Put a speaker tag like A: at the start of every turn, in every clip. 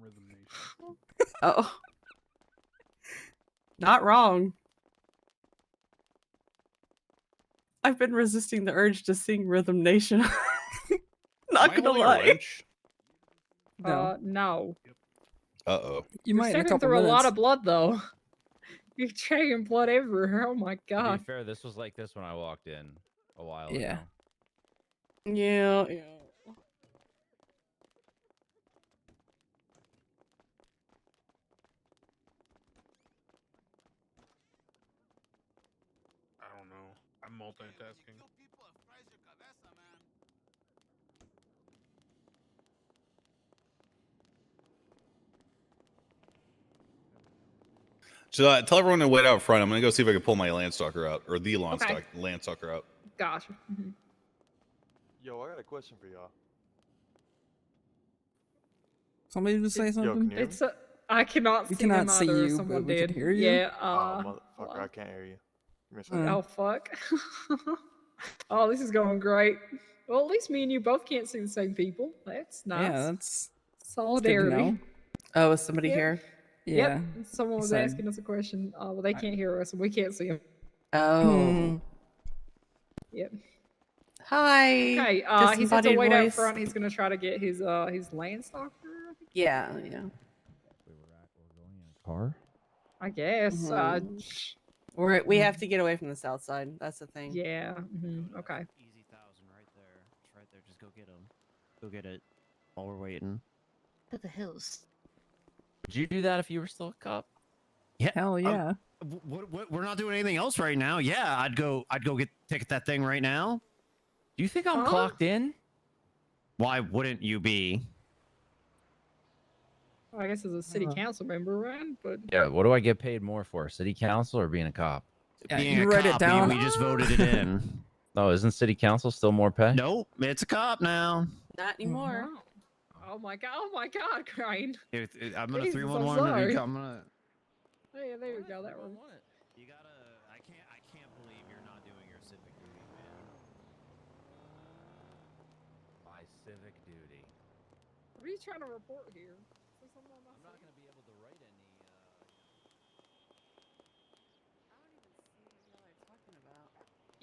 A: Rhythm Nation.
B: Oh. Not wrong. I've been resisting the urge to sing Rhythm Nation. Not
A: Am I
B: gonna
A: only a
B: lie.
A: wench?
B: No.
C: Uh, no.
D: Uh oh.
E: You
C: You're
E: might in a
C: sucking
E: couple
C: through
E: minutes.
C: a lot of blood though. You're dragging blood everywhere. Oh my
F: To
C: god.
B: Uh-huh.
F: be fair, this was like this when I walked in a while
E: Yeah.
F: ago.
B: yeah, yeah.
A: I don't know. I'm multitasking.
D: So uh, tell everyone to wait out front. I'm gonna go see if I can pull my landstalker out or the landstalk
C: Okay.
D: landstalker out.
C: Gosh. Mhm.
G: Yo, I got a question for y'all.
E: Somebody just say
G: Yo, can
E: something.
G: you hear me?
C: Mm-hmm. It's a. I cannot
E: We
C: see them
E: cannot see
C: either,
E: you, but
C: Someone
E: we can
C: did.
E: hear you?
C: Yeah.
G: oh,
C: Uh,
G: motherfucker, I can't hear you. Give me a second.
C: oh fuck. oh, this is going great. Well, at least me and you both can't see the same people. That's nice.
E: Yeah, that's good to
C: Solidarity.
E: know.
B: Oh, is somebody
C: Yeah.
B: here?
E: Yeah.
C: Yep. Someone was
E: so-
C: asking us a question. Uh, well, they can't hear us, and we can't see them.
B: Oh.
C: Yep.
B: Hi.
C: Okay. Uh, he's at the
B: Disembodied
C: wait out
B: voice.
C: front. He's gonna try to get his uh his land stalker.
B: Yeah, yeah.
F: We were at we were going in a car.
C: I guess. Uh,
B: Mhm.
C: sh-
E: Mm-hmm.
B: We're, we
E: Mm.
B: have to get away from the south side. That's the thing.
C: yeah. mhm, Okay.
H: Easy thousand right there. It's right there. Just go get him. Go get it. While we're waiting.
I: To the hills.
H: Would you do that if you were still a cop?
E: Hell
C: Um,
E: yeah.
H: What, what, we're not doing anything else right now. Yeah, I'd go. I'd go get ticket that thing right now.
F: Do you think I'm
C: Huh?
F: clocked in?
H: Why wouldn't you be?
C: Well, I guess as a city
E: Uh-huh.
B: Uh,
C: council member, right? But
F: Yeah. What do I get paid more for, city council or being a cop?
E: Yeah,
H: Being
E: you
H: a
E: wrote it
H: cop,
E: down.
H: We just voted it in.
F: Oh, isn't city council still more pay?
H: nope, it's a cop now.
C: Mm-hmm.
B: Not anymore.
C: Wow. Oh my god! Oh my god, Crane.
H: If, if- I'm gonna
C: Jesus, I'm
H: three one one.
C: sorry.
H: I'm gonna.
C: Yeah, there you go. That one.
H: You gotta. I can't. I can't believe you're not doing your civic duty, man.
F: My civic duty.
C: What are you trying to report here? Is there someone else?
H: I'm not gonna be able to write any.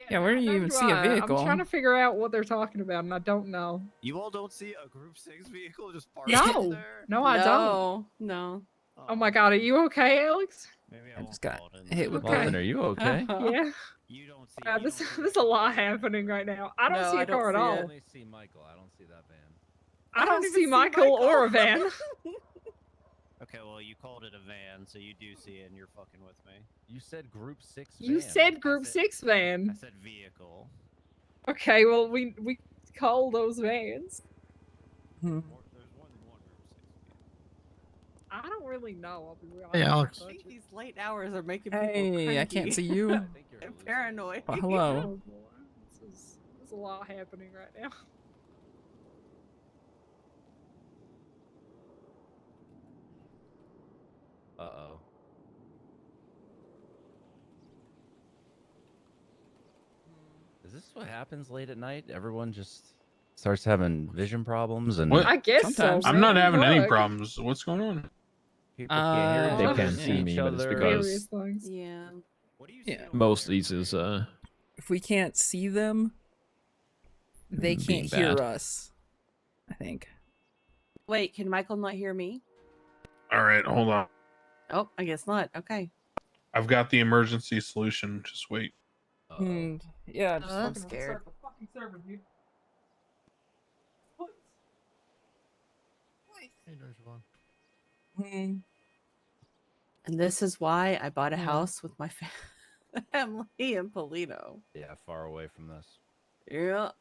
E: Yeah, where do you
C: neither
E: even
C: do
E: see a
C: I.
E: vehicle?
C: I'm trying to figure out what they're talking about, and I don't know.
H: You all don't see a Group Six vehicle just parked
C: No.
H: there?
C: No, I don't.
B: No.
C: Oh my god, are you okay, Alex?
H: Maybe
E: I
H: won't
E: just got
H: call it in
E: hit
H: then.
E: with
C: Okay.
F: Marvin, are you okay?
B: Uh,
C: Yeah.
H: You don't see.
C: Yeah,
H: you
C: this
H: don't see
C: there's
H: that
C: a lot
H: vehicle.
C: happening right now. I don't
B: No,
C: see a
B: I don't
C: car at
B: see
F: I
C: all.
B: it.
F: only see Michael. I don't see that van.
C: I don't see Michael or a van.
H: Okay, well, you called it a van, so you do see it, and you're fucking with me.
F: You said group six.
C: You
F: van.
C: said group
H: said-
C: six
H: I
C: van.
H: said vehicle.
C: Okay, well we we call those vans.
E: Hmm.
H: More- There's more than one Group Six. vehicle.
C: I don't really know. I'll be real.
G: Hey,
C: I don't
G: Alex.
B: I
C: touch
B: think
C: it.
B: these late hours are making people
E: Hey, I can't
B: cranky.
E: see you.
F: I think you're
B: I'm paranoid.
F: hallucinating.
E: Well, hello.
C: Oh boy, this is there's a lot happening right now.
F: Uh oh. Is this what happens late at night? Everyone just starts having vision problems and
A: What?
C: I guess
E: Sometimes.
C: so.
A: I'm not
C: man,
A: having any
C: look.
A: problems. What's going on?
F: people can't hear
C: Uh,
F: each
C: They
F: other,
C: can
F: see
C: see
F: each
J: me, but it's
F: other.
J: because-
C: Serious things.
B: Yeah.
H: What do you
E: Yeah.
H: see? over
J: Most
H: there?
J: these is uh
E: If we can't see them, they
J: Mm,
E: can't
J: being
E: hear
J: bad.
E: us. I think.
B: Wait, can Michael not hear me?
A: All right, hold on.
B: Oh, I guess not. Okay.
A: I've got the emergency solution. Just wait.
F: Uh-oh.
E: Hmm, Yeah, just,
I: Uh,
E: I'm scared. Hmm.
B: And this is why I bought a
E: Mm.
B: house with my fa- family in Polito.
F: Yeah, far away from this.
B: Yeah.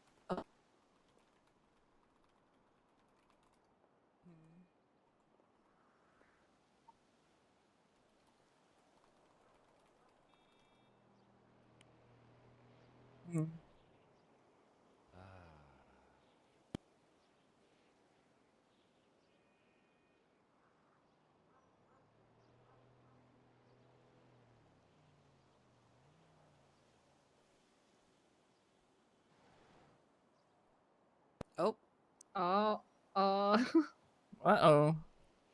E: Hmm.
B: Oh,
C: Uh, uh, uh,
E: Uh oh.